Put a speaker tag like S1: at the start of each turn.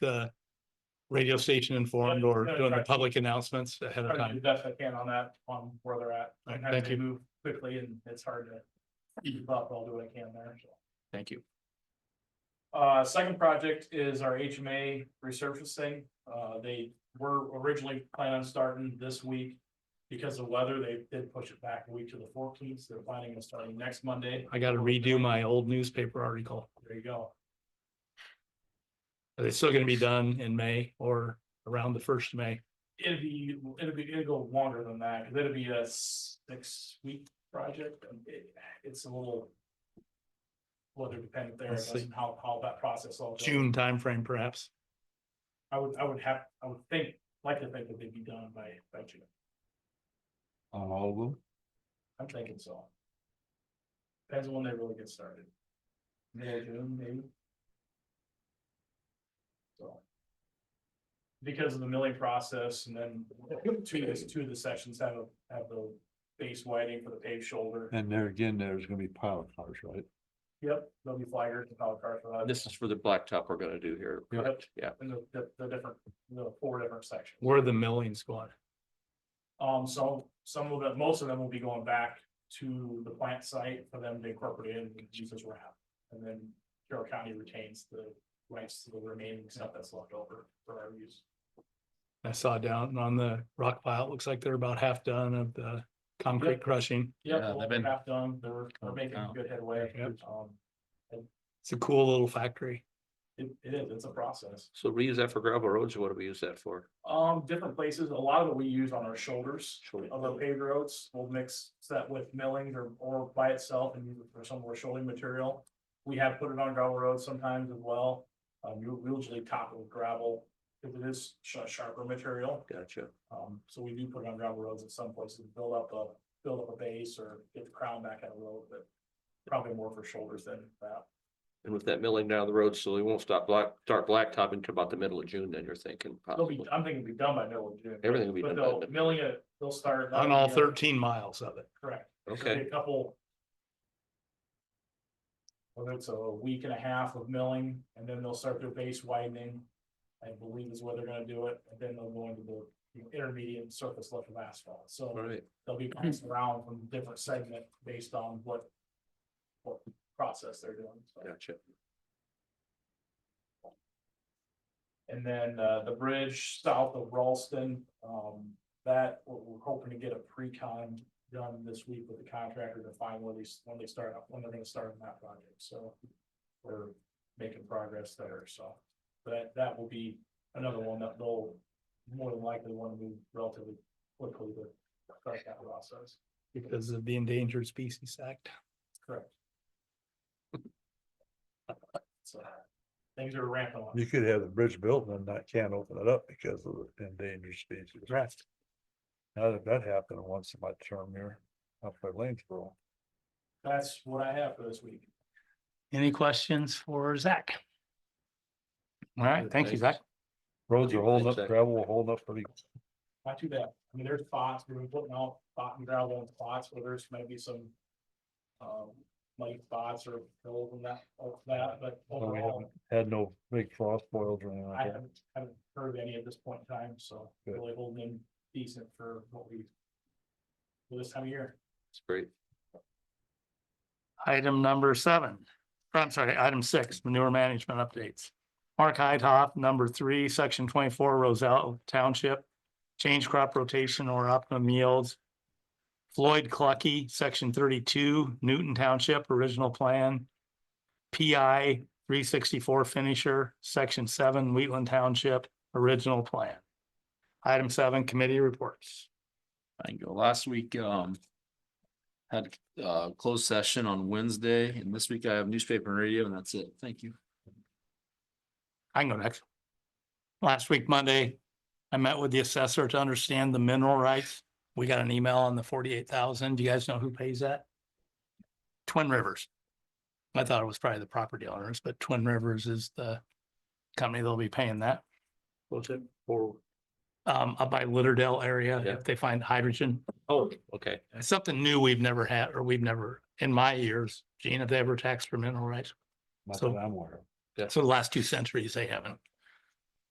S1: the radio station informed or doing the public announcements ahead of
S2: Try
S1: time.
S2: to do the best I can on that, on where they're at.
S1: All right,
S2: Sometimes
S1: thank
S2: they
S1: you.
S2: Move quickly and it's hard to keep up, I'll do what I can there, so.
S1: Thank you.
S2: Uh, second project is our HMA resurfacing. Uh, they were originally planning on starting this week. Because of weather, they did push it back a week to the fourteenth, so they're planning on starting next Monday.
S1: I gotta redo my old newspaper article.
S2: There you go.
S1: Are they still gonna be done in May or around the first of May?
S2: It'd be, it'd be, it'd go longer than that, because it'd be a six week project, and it, it's a little. Weather dependent there, I
S1: Let's
S2: guess,
S1: see.
S2: and how, how that process all. goes.
S1: June timeframe perhaps?
S2: I would, I would have, I would think, like to think that they'd be done by, by June,
S3: on all of them.
S2: I'm thinking so. Depends on when they really get started. May, June, maybe. So. Because of the milling process and then two, of the- two of the sections have, a- have the base widening for the paved shoulder.
S3: And there again, there's gonna be pilot cars, right?
S2: Yep, there'll be flaggers and power cars for that.
S4: This is for the blacktop we're gonna do here.
S3: Yeah.
S4: correct? Yeah,
S2: And the, the, the different, the four different sections.
S1: We're the milling squad.
S2: Um, so some of them, most of them will be going back to the plant site for them to incorporate in Jesus wrap. And then Carroll County retains the rights to the remaining stuff that's left over for our use.
S1: I saw down on the rock pile, it looks like they're about half done of the concrete
S2: Yep.
S1: crushing.
S4: Yeah,
S2: Yep,
S4: they've
S2: well,
S4: been-
S2: half done, they're, they're making
S4: Oh.
S2: good headway.
S1: Yep.
S2: Um,
S1: It's a cool little factory.
S2: it, it is, it's a process.
S4: so we use that for gravel roads, or what do we use that for?
S2: Um, different places, a lot of it we use on our shoulders.
S4: Shoulder.
S2: Of the paved roads, we'll mix that with milling or, or by itself and use it for some more shouldering material. We have put it on gravel roads sometimes as well. Um, you we usually top it with gravel, if it is sh- sharper material.
S4: Gotcha.
S2: Um, so we do put it on gravel roads in some places, build up a, build up a base or get the crown back out of the road, but probably more for shoulders than that.
S4: And with that milling down the road, so we won't stop black, start blacktopping until about the middle of June, then you're thinking
S2: They'll be,
S4: possibly.
S2: I'm thinking it'll be done by middle of June,
S4: Everything will be
S2: but
S4: done. by
S2: they'll,
S4: then.
S2: milling it, they'll start.
S1: On all
S2: Yeah,
S1: thirteen miles of it.
S2: Correct. There'll
S4: Okay,
S2: be A couple. Whether it's a week and a half of milling and then they'll start their base widening. I believe is where they're gonna do it, and then they'll go into the you know, intermediate surface level of asphalt,
S4: all
S2: so
S4: right.
S2: they'll be bouncing around from different segment based on what. What process they're doing, so.
S4: gotcha.
S2: And then uh, the bridge south of Ralston, um, that we're, we're hoping to get a pre-con done this week with the contractor to find when they, s- when they start up, when they're gonna start on that project, so. We're making progress there, so that, that will be another one that they'll more than likely want to move relatively quickly to start that process.
S1: because of the Endangered Species Act.
S2: Correct. So things are ramping up.
S3: You could have the bridge built and that can't open it up because of the endangered species. Right. Now that that happened once in my term here, up by Lanesboro.
S2: That's what I have for this week.
S1: Any questions for Zach? All right, thank you, Zach.
S3: Roads are holding up,
S4: Exactly.
S3: gravel will hold up pretty.
S2: not too bad. I mean, there's spots, we've been putting out spot and gravel in spots where there's maybe some. Um, muddy spots or hills and that, all that, but
S3: well, We
S2: overall,
S3: haven't had no big frost boils or anything
S2: I
S3: like that.
S2: haven't, haven't heard of any at this point in time, so
S3: Good.
S2: really holding in decent for what we. for This time of year.
S4: It's great.
S1: Item number seven, or I'm sorry, item six, manure management updates. Mark Heidhoff, number three, section twenty-four, Roselle Township, change crop rotation or optimum yields. Floyd Clucky, section thirty-two, Newton Township, original plan. PI three sixty-four finisher, section seven, Wheatland Township, original plan. Item seven, committee reports.
S5: Thank you. Last week, um. Had uh closed session on Wednesday and this week I have newspaper and radio and that's it. Thank you.
S1: I can go next. Last week, Monday, I met with the assessor to understand the mineral rights. We got an email on the forty-eight thousand. Do you guys know who pays that? Twin Rivers. I thought it was probably the property owners, but Twin Rivers is the company that'll be paying that.
S4: What's it for?
S1: Um, up by Litterdale area,
S4: Yeah.
S1: if they find hydrogen,
S4: Oh, okay,
S1: It's something new we've never had, or we've never, in my years, Gene, have they ever taxed for mineral rights?
S3: Not
S1: So-
S3: that I'm aware of.
S1: So the last two centuries, they haven't.